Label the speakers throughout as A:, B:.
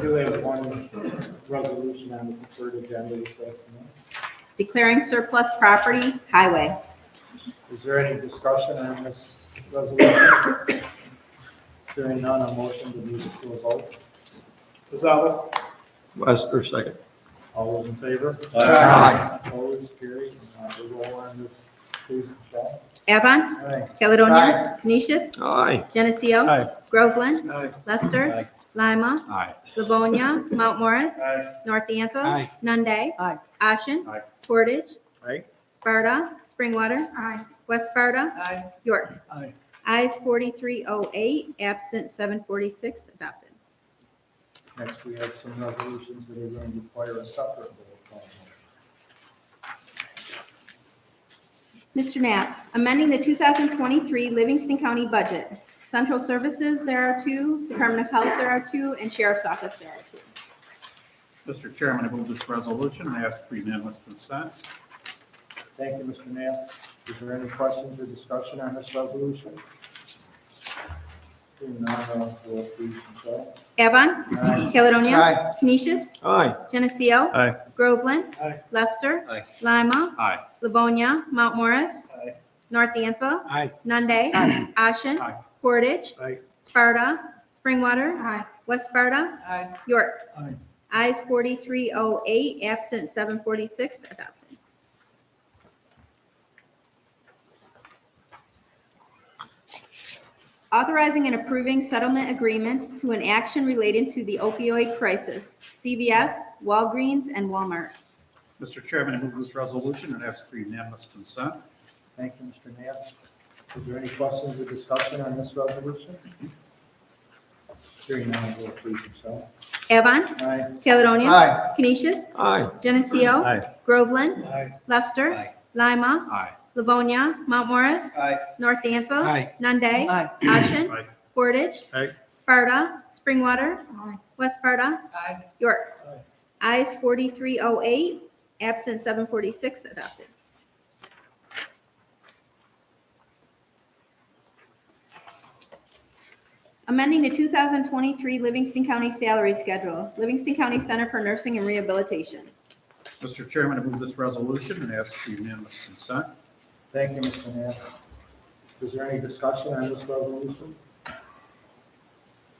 A: do have one resolution on the preferred agenda this afternoon.
B: Declaring surplus property, highway.
A: Is there any discussion on this resolution? Hearing none, a motion to move it to a vote. Gisella?
C: Wester, second.
A: All those in favor?
C: Aye.
A: Opposed, carried. Uh, we roll on this, please, Michelle.
B: Avon,
A: Aye.
B: Caledonia, Canisius,
C: Aye.
B: Geneseo,
C: Aye.
B: Groveland,
C: Aye.
B: Lester,
A: Aye.
B: Lima,
C: Aye.
B: Livonia, Mount Morris,
A: Aye.
B: North D'Anville,
C: Aye.
B: Nunde,
D: Aye.
B: Ashen,
A: Aye.
B: Portage,
C: Aye.
B: Sparta, Springwater,
D: Aye.
B: West Sparta,
D: Aye.
B: York.
C: Aye.
B: Ayes 4308, absent 746, adopted.
A: Next, we have some resolutions that are going to require a separate roll call.
B: Mr. Knapp, amending the 2023 Livingston County budget. Central Services, there are two, Department of Health, there are two, and Sheriff's Office, there are two.
E: Mr. Chairman, I move this resolution and ask for unanimous consent.
A: Thank you, Mr. Knapp. Is there any questions or discussion on this resolution? Hearing none, uh, roll please, Michelle.
B: Avon,
A: Aye.
B: Caledonia,
A: Aye.
B: Canisius,
C: Aye.
B: Geneseo,
C: Aye.
B: Groveland,
A: Aye.
B: Lester,
C: Aye.
B: Lima,
E: Aye.
B: Livonia, Mount Morris,
A: Aye.
B: North Dansville,
C: Aye.
B: Nunde, Ashen,
E: Aye.
B: Portage,
A: Aye.
B: Sparta, Springwater, West Sparta,
D: Aye.
B: York.
A: Aye.
B: Ayes 4308, absent 746, adopted. Authorizing and approving settlement agreements to an action related to the opioid crisis, CVS, Walgreens, and Walmart.
E: Mr. Chairman, I move this resolution and ask for unanimous consent.
A: Thank you, Mr. Knapp. Is there any questions or discussion on this resolution? Hearing none, roll please, Michelle.
B: Avon,
A: Aye.
B: Caledonia,
A: Aye.
B: Canisius,
C: Aye.
B: Geneseo,
C: Aye.
B: Groveland,
A: Aye.
B: Lester,
C: Aye.
B: Lima,
E: Aye.
B: Livonia, Mount Morris,
A: Aye.
B: North Dansville,
C: Aye.
B: Nunde,
D: Aye.
B: Ashen,
E: Aye.
B: Portage.
C: Aye.
B: Sparta, Springwater. West Sparta,
D: Aye.
B: York. Ayes 4308, absent 746, adopted. Amending the 2023 Livingston County Salary Schedule, Livingston County Center for Nursing and Rehabilitation.
E: Mr. Chairman, I move this resolution and ask for unanimous consent.
A: Thank you, Mr. Knapp. Is there any discussion on this resolution?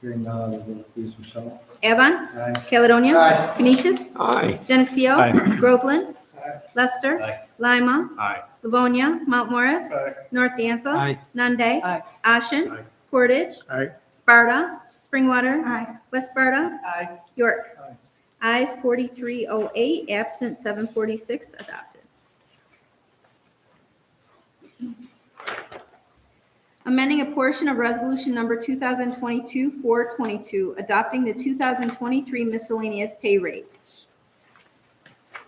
A: Hearing none, roll please, Michelle.
B: Avon,
A: Aye.
B: Caledonia.
A: Aye.
B: Canisius,
C: Aye.
B: Geneseo.
C: Aye.
B: Groveland.
A: Aye.
B: Lester.
C: Aye.
B: Lima.
E: Aye.
B: Livonia. Mount Morris.
A: Aye.
B: North Dansville.
C: Aye.
B: Nunde.
D: Aye.
B: Ashen.
E: Aye.
B: Portage.
A: Aye.
B: Sparta. Springwater. West Sparta.
D: Aye.
B: York. Eyes 4308, absent 746, adopted. Amending a portion of Resolution Number 2022-422, adopting the 2023 miscellaneous pay rates.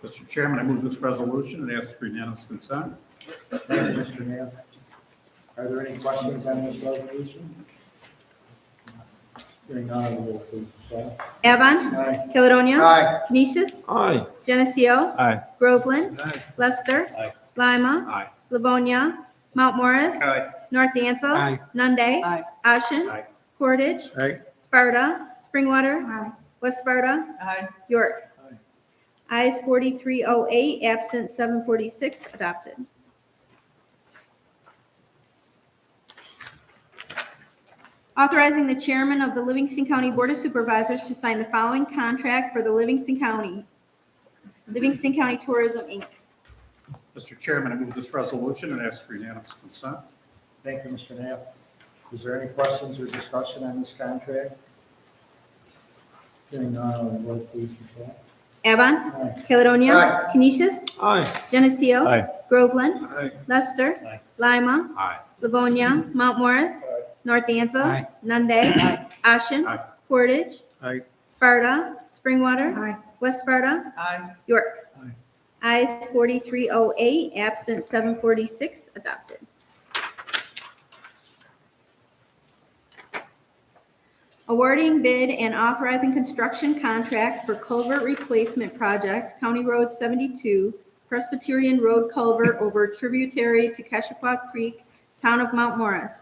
E: Mr. Chairman, I move this resolution and ask for unanimous consent.
A: Thank you, Mr. Knapp. Are there any questions on this resolution? Hearing none, roll please, Michelle.
B: Avon,
A: Aye.
B: Caledonia,
A: Aye.
B: Canisius,
C: Aye.
B: Geneseo,
C: Aye.
B: Groveland,
A: Aye.
B: Lester,
C: Aye.
B: Lima,
E: Aye.
B: Livonia, Mount Morris,
E: Aye.
B: North Dansville,
C: Aye.
B: Nunde,
D: Aye.
B: Ashen,
E: Aye.
B: Portage,
A: Aye.
B: Sparta, Springwater. West Sparta,
D: Aye.
B: York. Ayes 4308, absent 746, adopted. Authorizing the chairman of the Livingston County Board of Supervisors to sign the following contract for the Livingston County, Livingston County Tourism, Inc.
E: Mr. Chairman, I move this resolution and ask for unanimous consent.
A: Thank you, Mr. Knapp. Is there any questions or discussion on this contract? Hearing none, roll please, Michelle.
B: Avon,
A: Aye.
B: Caledonia, Canisius,
C: Aye.
B: Geneseo,
C: Aye.
B: Groveland,
C: Aye.
B: Lester,
C: Aye.
B: Lima,
E: Aye.
B: Livonia, Mount Morris,
A: Aye.
B: North Dansville,
C: Aye.
B: Nunde, Ashen,
E: Aye.
B: Portage,
C: Aye.
B: Sparta, Springwater, West Sparta,
D: Aye.
B: York. Ayes 4308, absent 746, adopted. Awarding bid and authorizing construction contract for culvert replacement project, County Road 72, Presbyterian Road Culvert over tributary to Keshequa Creek, Town of Mount Morris.